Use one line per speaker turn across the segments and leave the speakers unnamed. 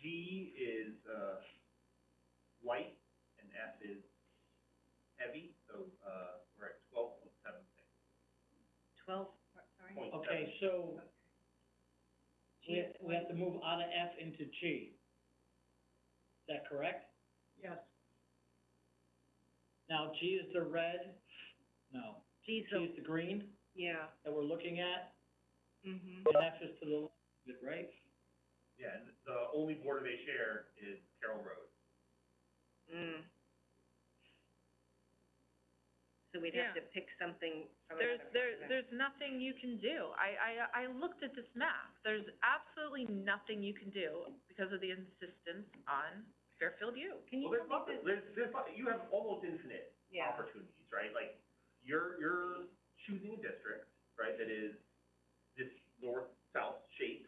G is, uh, light, and F is heavy, so, uh, we're at twelve point seven six.
Twelve, sorry?
Okay, so we, we have to move out of F into G. Is that correct?
Yes.
Now, G is the red, no,
G's
G is the green
yeah,
that we're looking at,
mhm.
and F is to the left, of it, right?
Yeah, and the only Board of A share is Carroll Road.
Mm. So we'd
Yeah.
have to pick something from a
There's,
separate
there,
event.
there's nothing you can do. I, I, I looked at this map. There's absolutely nothing you can do because of the insistence on Fairfield U.
Can you
Well, there's
tell me
nothing, there's, there's, not- you have almost infinite
the- yeah,
opportunities, right? Like, you're, you're choosing a district, right, that is this north-south shape,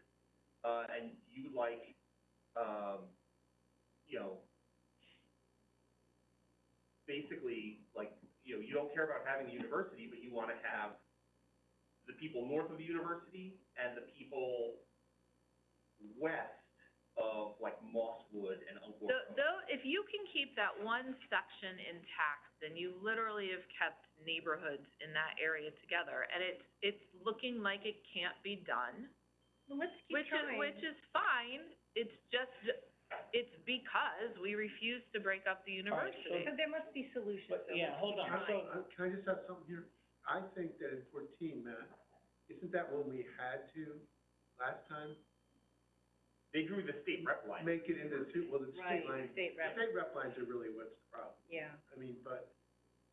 uh, and you like, um, you know, basically, like, you know, you don't care about having the university, but you wanna have the people north of the university and the people west of, like, Mosswood and Uncle
Tho-
Grove.
Though, if you can keep that one section intact, then you literally have kept neighborhoods in that area together. And it's, it's looking like it can't be done,
well, let's keep
which is,
trying.
which is fine. It's just, it's because we refuse to break up the
All right, so-
university.
So there must be solutions.
But,
though.
yeah, hold on, so,
Uh, Can I just have something here? I think that in fourteen, Matt, isn't that when we had to, last time,
They drew the state rep line.
make it into two, well, the
Right,
state lines,
the state
the
rep,
state rep lines are really what's the problem.
yeah,
I mean, but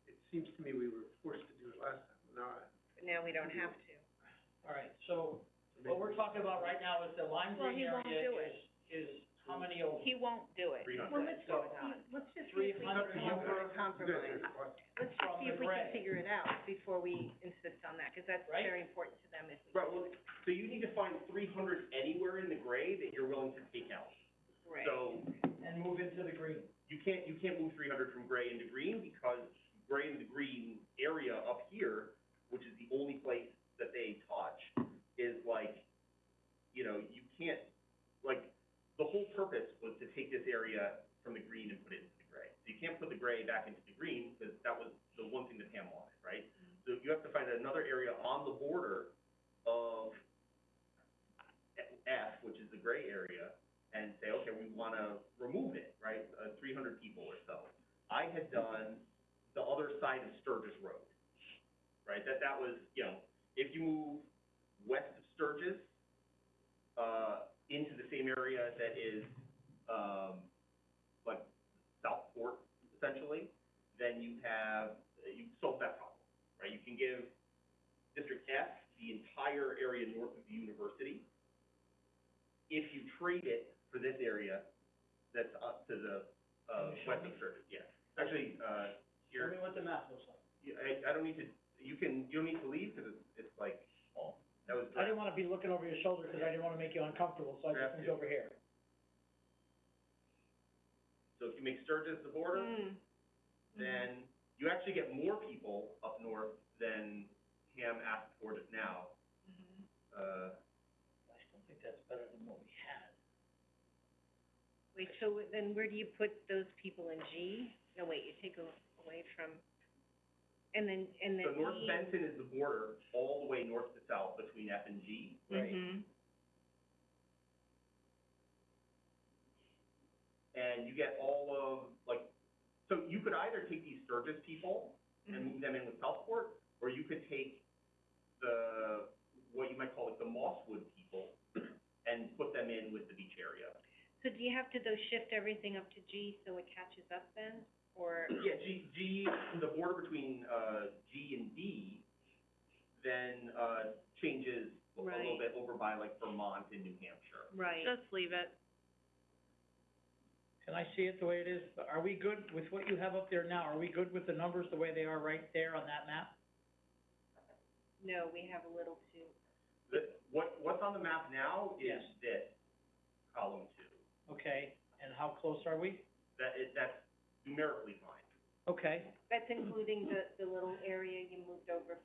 it seems to me we were forced to do it last time, now I.
but now we don't have to.
all right, so what we're talking about right now is the lime
Well,
green
he won't
area
do
is, is how many over?
He won't do it.
Three hundred.
Well, let's
So-
just see, let's just see
Three
if we
hundred
can
over-
compromise. Let's just
from
see if we
the
can
red.
figure it out before we insist on that, because that's
Right?
very important to them if we.
Right, well, so you need to find three hundred anywhere in the gray that you're willing to take out.
Right.
So
And move into the green.
you can't, you can't move three hundred from gray into green because gray into green area up here, which is the only place that they touch, is like, you know, you can't, like, the whole purpose was to take this area from the green and put it into the gray. So you can't put the gray back into the green because that was the one thing that Pam wanted, right? So you have to find another area on the border of F, which is the gray area, and say, okay, we want to remove it, right, uh, three hundred people or so. I had done the other side of Sturgis Road, right, that, that was, you know, if you move west of Sturgis, uh, into the same area that is, um, like Southport essentially, then you have, you solve that problem, right? You can give District F the entire area north of the university, if you trade it for this area, that's up to the, uh,
Can you show
west
me?
of Sturgis, yeah. Actually, uh,
Tell
here,
me what the map looks like.
you- I, I don't need to, you can, you don't need to leave, because it's, it's like, oh, that was.
I didn't wanna be looking over your shoulder, cause I didn't wanna make you uncomfortable, so I just
Yeah.
moved over here.
So if you make Sturgis the border,
Mm.
then you actually get more people up north than Ham asked for just now. Uh,
I still think that's better than what we had.
Wait, so then where do you put those people in G? No, wait, you take a- away from, and then, and
so
then E.
North Benton is the border, all the way north to south between F and G.
Right.
Mhm.
And you get all of, like, so you could either take these Sturgis people and
Mhm.
move them in with Southport, or you could take the, what you might call like the Mosswood people and put them in with the beach area.
So do you have to though shift everything up to G so it catches up then, or?
Yeah, G, G, the border between, uh, G and D then, uh, changes a little
Right.
bit over by like Vermont and New Hampshire.
Right.
Just leave it.
Can I see it the way it is? Are we good with what you have up there now? Are we good with the numbers the way they are right there on that map?
No, we have a little too,
The, what, what's on the map now is
Yes.
this, column two.
Okay, and how close are we?
That is, that's numerically fine.
Okay.
that's including the, the little area you moved over